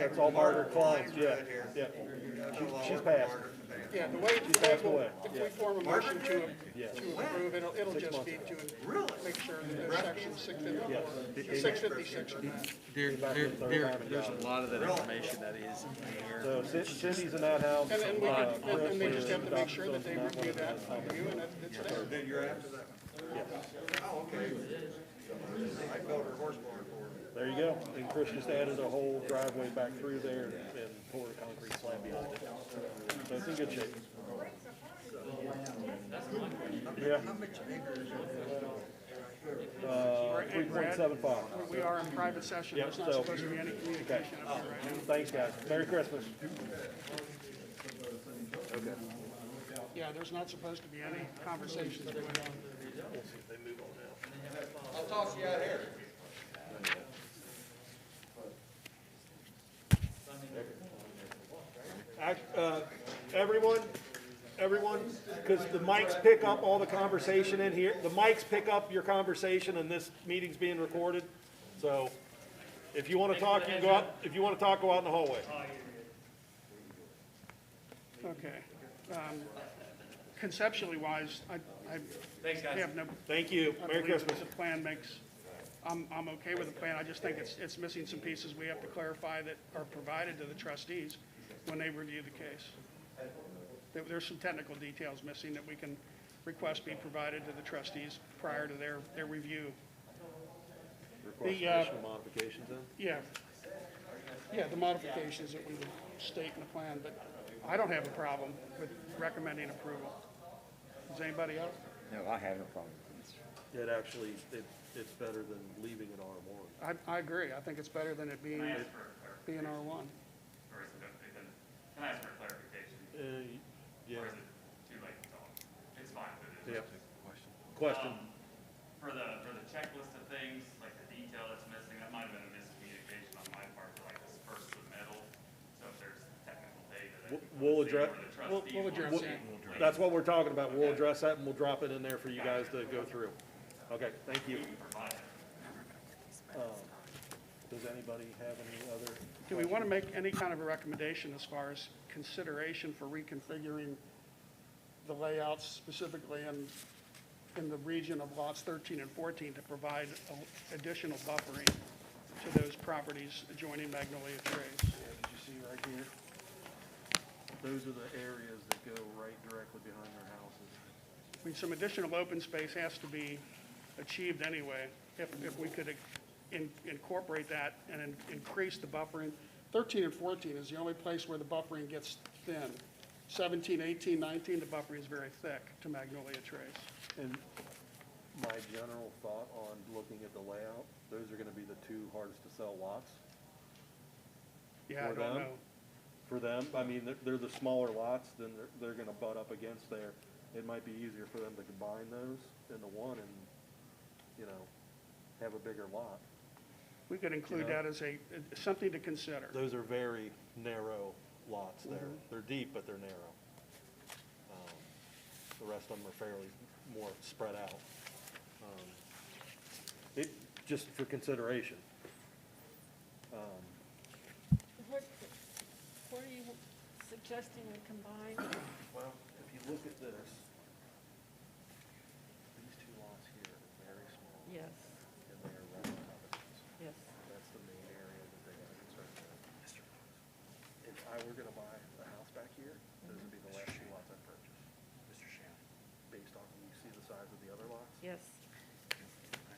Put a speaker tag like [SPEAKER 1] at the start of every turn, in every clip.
[SPEAKER 1] it's all Margaret Klein's, yeah, yeah. She's- She's passed,
[SPEAKER 2] Yeah, the way, the way,
[SPEAKER 1] passed
[SPEAKER 2] we'll-
[SPEAKER 1] away,
[SPEAKER 2] if
[SPEAKER 1] yeah.
[SPEAKER 2] we form a motion to,
[SPEAKER 1] Yes.
[SPEAKER 2] to approve, it'll, it'll just be to make sure that there's section six fifty-four, six fifty-six.
[SPEAKER 3] There, there, there, there's a lot of that information that is in
[SPEAKER 1] so
[SPEAKER 3] there.
[SPEAKER 1] Cin- Cindy's in that house.
[SPEAKER 2] And, and we
[SPEAKER 1] uh,
[SPEAKER 2] could, and- and they just have to make sure that
[SPEAKER 1] Chris
[SPEAKER 2] they
[SPEAKER 1] is
[SPEAKER 2] review that, review, and it's- it's there.
[SPEAKER 1] adopted.
[SPEAKER 4] Oh, I built her horse barn for her.
[SPEAKER 1] There you go, and Chris just added a whole driveway back through there and- and poured a concrete slab behind it. So it's in good shape. Yeah. Uh, three point seven five.
[SPEAKER 2] We are in private session, there's not
[SPEAKER 1] so-
[SPEAKER 2] supposed to be any communication up here right now.
[SPEAKER 1] Thanks, guys. Merry Christmas.
[SPEAKER 2] Yeah, there's not supposed to be any conversations going on.
[SPEAKER 4] I'll toss you out here.
[SPEAKER 5] Act- uh, Everyone, everyone, because the mics pick up all the conversation in here. The mics pick up your conversation and this meeting's being recorded. So if you want to talk, you can go out, if you want to talk, go out in the hallway.
[SPEAKER 2] Okay. Um, Conceptually wise, I, I. Have no,
[SPEAKER 5] Thank you.
[SPEAKER 2] I
[SPEAKER 5] Merry
[SPEAKER 2] believe that
[SPEAKER 5] Christmas.
[SPEAKER 2] the plan makes, I'm, I'm okay with the plan, I just think it's, it's missing some pieces we have to clarify that are provided to the trustees when they review the case. There, there's some technical details missing that we can request be provided to the trustees prior to their, their review. The, uh,
[SPEAKER 3] Modifications then?
[SPEAKER 2] yeah. Yeah, the modifications that we would state in the plan, but I don't have a problem with recommending approval. Does anybody else?
[SPEAKER 6] No, I have no problem with this.
[SPEAKER 3] It actually, it, it's better than leaving it R one.
[SPEAKER 2] I, I agree. I think it's better than it being,
[SPEAKER 7] Can I ask for a clar-
[SPEAKER 2] being R1.
[SPEAKER 7] or is it gonna be then- can I ask for clarification?
[SPEAKER 5] Uh,
[SPEAKER 3] yeah.
[SPEAKER 7] Or is it too late to talk? It's fine, but it is.
[SPEAKER 5] Question.
[SPEAKER 7] Um, For the, for the checklist of things, like the detail that's missing, that might have been a miscommunication on my part for like this first submittal. So if there's technical data that.
[SPEAKER 5] We'll-
[SPEAKER 7] we
[SPEAKER 5] We'll address,
[SPEAKER 7] couldn't see or the
[SPEAKER 5] we'll-
[SPEAKER 7] trustees
[SPEAKER 5] we'll
[SPEAKER 7] weren't
[SPEAKER 5] address,
[SPEAKER 7] seeing, like,
[SPEAKER 5] that's what we're talking about. We'll address that and we'll drop it in there for you guys to go through. Okay, thank you. Um,
[SPEAKER 7] we provided.
[SPEAKER 1] Does anybody have any other?
[SPEAKER 2] Do we want to make any kind of a recommendation as far as consideration for reconfiguring the layouts specifically in, in the region of lots 13 and 14 to provide a- additional buffering to those properties adjoining Magnolia Trace?
[SPEAKER 3] Did you see right here? Those are the areas that go right directly behind their houses.
[SPEAKER 2] I mean, some additional open space has to be achieved anyway, if, if we could in- incorporate that and in- increase the buffering. Thirteen and fourteen is the only place where the buffering gets thin. 17, 18, 19, the buffering is very thick to Magnolia Trace.
[SPEAKER 3] And my general thought on looking at the layout, those are gonna be the two hardest to sell lots
[SPEAKER 2] Yeah, I
[SPEAKER 3] For
[SPEAKER 2] don't
[SPEAKER 3] them?
[SPEAKER 2] know.
[SPEAKER 3] for them. I mean, they're, they're the smaller lots, then they're, they're gonna butt up against there. It might be easier for them to combine those into one and, you know, have a bigger lot.
[SPEAKER 2] We could include that as a, something to consider.
[SPEAKER 5] Those are very narrow lots there. They're deep, but they're narrow. Um, The rest of them are fairly more spread out. Um,
[SPEAKER 1] It, just for consideration.
[SPEAKER 8] What, what are you suggesting to combine?
[SPEAKER 3] Well, if you look at this, these two lots here are very small,
[SPEAKER 8] Yes,
[SPEAKER 3] and they are round covers.
[SPEAKER 8] yes.
[SPEAKER 3] That's the main area that they are concerned with. If I were gonna buy a house back here, those would be the last two lots I'd purchase. Mr. Shannon. Based on, you see the size of the other lots?
[SPEAKER 8] Yes.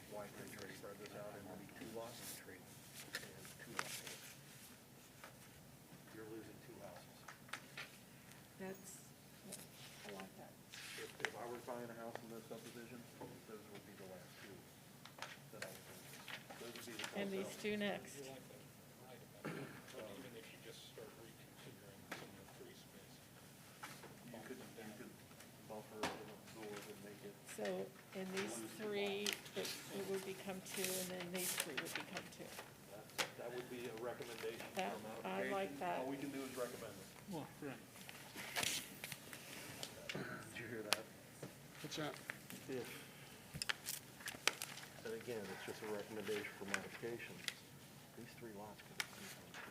[SPEAKER 3] Why couldn't you spread this out into two lots? And two lots. You're losing two houses.
[SPEAKER 8] That's, I like that.
[SPEAKER 3] If, if I were buying a house in this subdivision, those would be the last two that I would purchase. Those would be the.
[SPEAKER 8] And these two next.
[SPEAKER 9] even if you just start reconfiguring some of the free space.
[SPEAKER 3] You could, you could buffer and absorb and make it
[SPEAKER 8] So, and these three, it it would become two, and then these three would become two.
[SPEAKER 5] That- That would be a recommendation for
[SPEAKER 8] That,
[SPEAKER 5] modification.
[SPEAKER 8] I like that.
[SPEAKER 5] All we can do is recommend it.
[SPEAKER 3] Did you hear that?
[SPEAKER 2] What's that?
[SPEAKER 3] And again, it's just a recommendation for modification. These three lots can